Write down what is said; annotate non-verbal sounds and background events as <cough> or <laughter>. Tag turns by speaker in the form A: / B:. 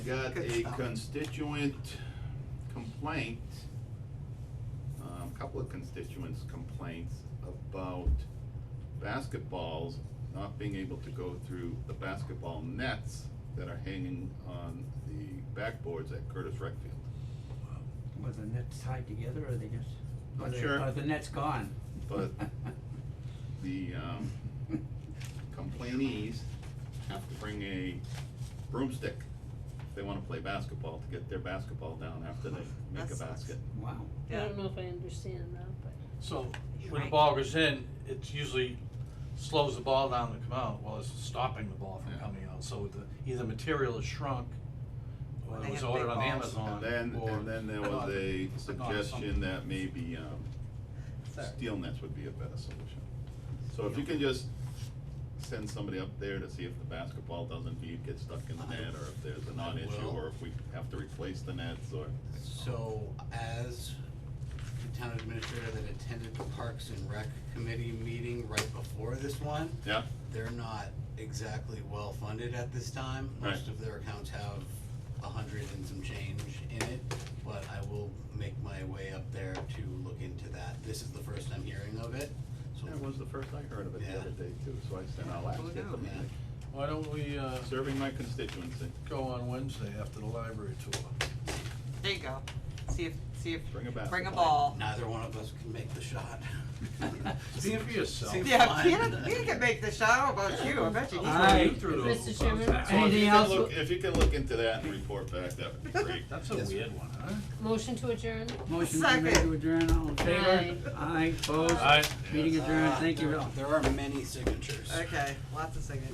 A: Got a
B: Good job.
A: constituent complaint, um, couple of constituents' complaints about basketballs not being able to go through the basketball nets that are hanging on the backboards at Curtis Rec Field.
B: Were the nets tied together or they just? are
A: Not
B: they-
A: sure.
B: Are the nets gone?
A: But the, um, complainees have to bring a broomstick if they wanna play basketball to get their basketball down after they make a
C: That sucks.
A: basket.
B: <laughs> Wow,
D: I
C: Yeah,
D: don't know if I understand that, but.
E: So when the
C: Right.
E: ball goes in, it usually slows the ball down to come out, well, it's stopping the ball
A: Yeah.
E: from coming out, so the, either material is shrunk,
C: Or
E: or
C: they
E: it was
C: have
E: ordered
C: big
E: on
C: balls.
E: Amazon,
A: And then,
E: or
A: and then there was
E: not-
A: a
E: not
A: suggestion
E: something.
A: that maybe, um,
C: Sorry.
A: steel nets would be a better solution. So if you can just send somebody up there to see if the basketball doesn't beat, get stuck in the net, or if there's a
F: I
A: non-issue,
F: will.
A: or if we have to replace the nets, or.
F: So as the town administrator that attended the Parks and Rec Committee meeting right before this one,
A: Yeah,
F: they're not exactly well-funded at this time. Most
A: Right.
F: of their accounts have a hundred and some change in it, but I will make my way up there to look into that. This is the first I'm hearing of it, so.
A: that was the first I heard of it the
F: Yeah.
A: other day too, so I sent out last
C: Who
A: year.
C: knew?
F: Yeah.
E: Why don't we, uh,
A: Serving my constituency,
E: go on Wednesday after the library tour?
C: there you go. See if, see if,
A: Bring a
C: bring a
A: basketball.
C: ball.
F: Neither one of us can make the shot.
E: See for yourself.
F: Seems
C: Yeah,
F: fine.
C: Peter, Peter can make the shot, I don't know about you, I bet you he
B: Aye.
C: can.
E: You threw those
D: Mr.
E: bugs
D: Chairman?
E: out.
A: So if
B: Anything
A: you can
B: else?
A: look, if you can look into that and report back, that would be <laughs> great.
E: That's a
F: Yes.
E: weird one, huh?
D: Motion to adjourn?
B: motion to make
C: Second.
B: to adjourn, all in favor?
D: Aye.
F: Uh,
B: Aye, opposed, meeting adjourned, thank you, Bill.
F: There are many signatures.
C: Okay, lots of singing.